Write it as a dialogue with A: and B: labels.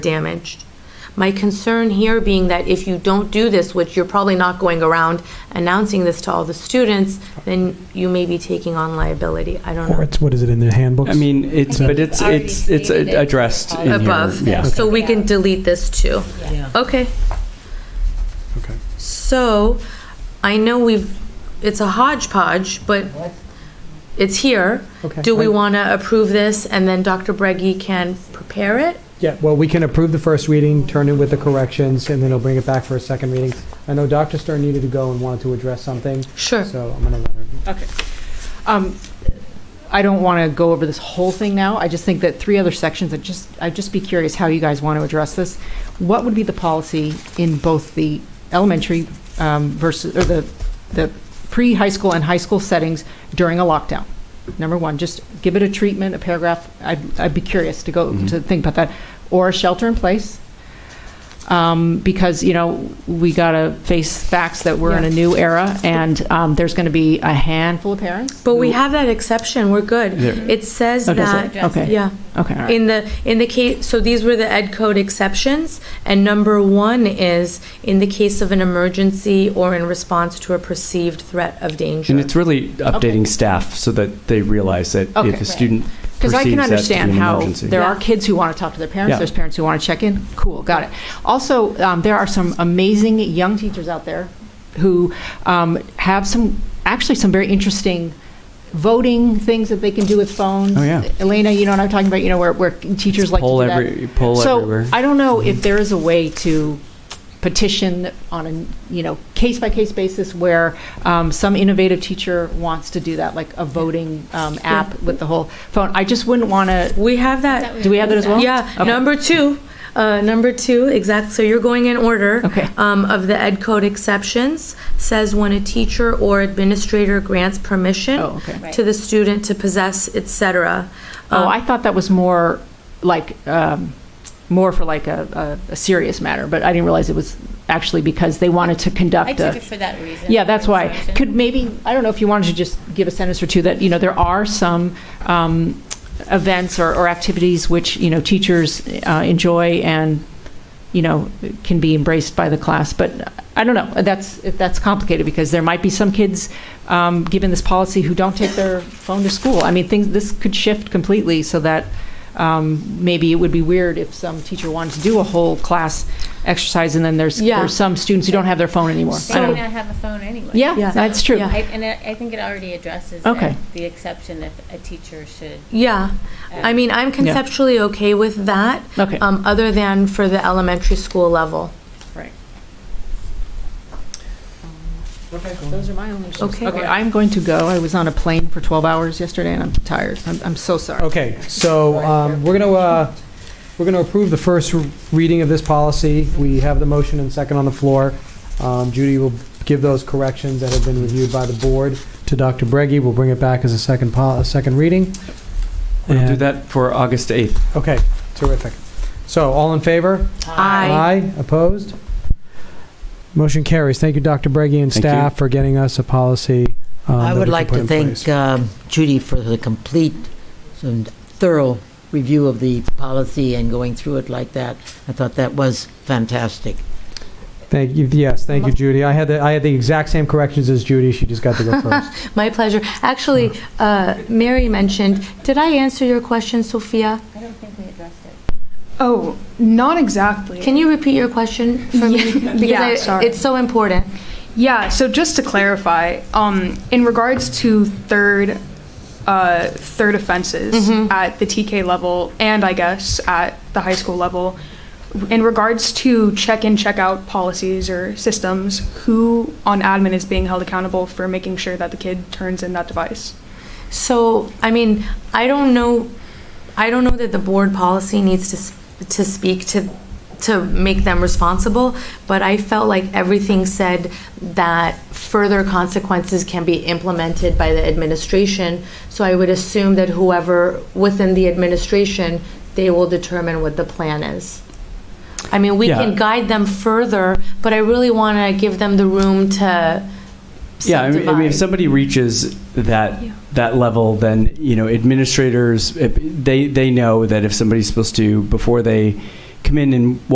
A: damaged. My concern here being that if you don't do this, which you're probably not going around announcing this to all the students, then you may be taking on liability. I don't
B: Or
A: know.
B: it's, what is it in the handbooks?
C: I mean, it's,
B: I
C: but
B: think
C: it's,
D: it's already
C: it's, it's
D: stated in the
C: addressed in here.
D: policy.
A: Above.
C: Yeah.
A: So we can delete this too.
D: Yeah.
A: Okay.
B: Okay.
A: So I know we've, it's a hodgepodge, but it's here.
B: Okay.
A: Do we
B: Right.
A: want to approve this and then Dr. Breggy can prepare it?
B: Yeah, well, we can approve the first reading, turn it with the corrections, and then it'll bring it back for a second reading. I know Dr. Stern needed to go and wanted to address something,
A: Sure.
B: so I'm going to let her.
D: Okay. Um, I don't want to go over this whole thing now. I just think that three other sections, I just, I'd just be curious how you guys want to address this. What would be the policy in both the elementary um, versus, or the, the pre-high school and high school settings during a lockdown? Number one, just give it a treatment, a paragraph. I'd, I'd be curious to go,
C: Mhm.
D: to think about that. Or a shelter in place. um, because you know we got to face facts that we're in a new era, and um, there's going to be a handful of parents.
A: But we
D: who-
A: have that exception. We're good.
C: There-
A: It says
D: Okay, so-
A: that,
D: okay,
A: yeah.
D: okay, all right.
A: In the, in the case, so these were the ed code exceptions, and number one is in the case of an emergency or in response to a perceived threat of
C: And
A: danger.
C: it's really updating staff so that they realize that
D: Okay.
C: if a student
D: Because I can
C: perceives that to be an
D: understand how
C: emergency.
D: there
A: Yeah.
D: are kids who want to talk to their parents,
C: Yeah.
D: there's parents who want to check in. Cool, got it. Also, um, there are some amazing young teachers out there who um, have some, actually some very interesting voting things that they can do with phones.
C: Oh, yeah.
D: Elena, you know what I'm talking about, you know, where, where teachers like to
C: Poll
D: do that.
C: every- poll everywhere. Mm-hmm.
D: So I don't know if there is a way to petition on a, you know, case-by-case basis where um, some innovative teacher wants to do that, like a voting um, app with the whole phone. I just wouldn't want to,
A: We have that.
D: do we have that as well?
A: Yeah,
D: Okay.
A: number two, uh, number two, exact, so you're going in order.
D: Okay.
A: Um, of the ed code exceptions, says when a teacher or administrator grants permission
D: Oh, okay.
A: to the student to possess, et cetera.
D: Oh,
A: Um,
D: I thought that was more like, um, more for like a, a a serious matter, but I didn't realize it was actually because they wanted to
E: I
D: conduct
E: took
D: a.
E: it for that reason.
D: Yeah, that's why.
E: Conversation.
D: Could maybe, I don't know if you wanted to just give a sentence or two that, you know, there are some um, events or or activities which, you know, teachers uh, enjoy and, you know, can be embraced by the class, but I don't know. That's, that's complicated because there might be some kids, um, given this policy, who don't take their phone to school. I mean, things, this could shift completely so that um, maybe it would be weird if some teacher wanted to do a whole class exercise and then there's,
A: Yeah.
D: there's some students who don't have their phone anymore.
E: They
D: I don't-
E: may not have a phone anyway.
D: yeah,
A: Yeah.
D: that's true.
A: Yeah.
E: I- And I I think it already addresses
D: Okay.
E: it, the exception if a teacher should. uh,
A: Yeah, I mean, I'm conceptually okay with that.
D: Okay.
A: Um, other than for the elementary school level.
D: Right.
B: Okay,
D: Um, Those are my only issues.
A: Okay.
D: Okay, I'm going to go. I was on a plane for 12 hours yesterday, and I'm tired. I'm, I'm so sorry.
B: Okay, so um, we're going to, we're going to approve the first r- reading of this policy. We have the motion and second on the floor. Um, Judy will give those corrections that have been reviewed by the board to Dr. Breggy. We'll bring it back as a second, pol- a second reading.
C: We'll do
B: And-
C: that for August 8th.
B: Okay, terrific. So, all in favor?
A: Aye.
B: opposed? Motion carries. Thank you, Dr. Breggy and
C: Thank
B: staff, for getting us a policy. um,
F: I
B: that we
F: would
B: can
F: like
B: put
F: to
B: in
F: thank
B: place.
F: um, Judy for the complete and thorough review of the policy and going through it like that. I thought that was fantastic.
B: Thank you, yes, thank you, Judy. I had the, I had the exact same corrections as Judy, she just got to go first.
A: My pleasure. Actually, uh, Mary mentioned, did I answer your question, Sophia?
E: I don't think we addressed it.
G: Oh, not exactly.
A: Can you repeat your question for me? Because
G: Yeah,
A: I-
G: sorry.
A: It's so important.
G: yeah, so just to clarify, um, in regards to third uh, third offenses at the TK level and I guess at the high school level, in regards to check-in check-out policies or systems, who on admin is being held accountable for making sure that the kid turns in that device?
A: So, I mean, I don't know, I don't know that the board policy needs to, s- to speak to, to make them responsible, but I felt like everything said that further consequences can be implemented by the administration. So I would assume that whoever within the administration, they will determine what the plan is. I mean, we can
C: Yeah.
A: guide them further, but I really want to give them the room to
C: Yeah, I mean, I mean, if
A: subdivide.
C: somebody reaches that,
G: Yeah.
C: that level, then, you know, administrators, if- they, they know that if somebody's supposed to, before they come in and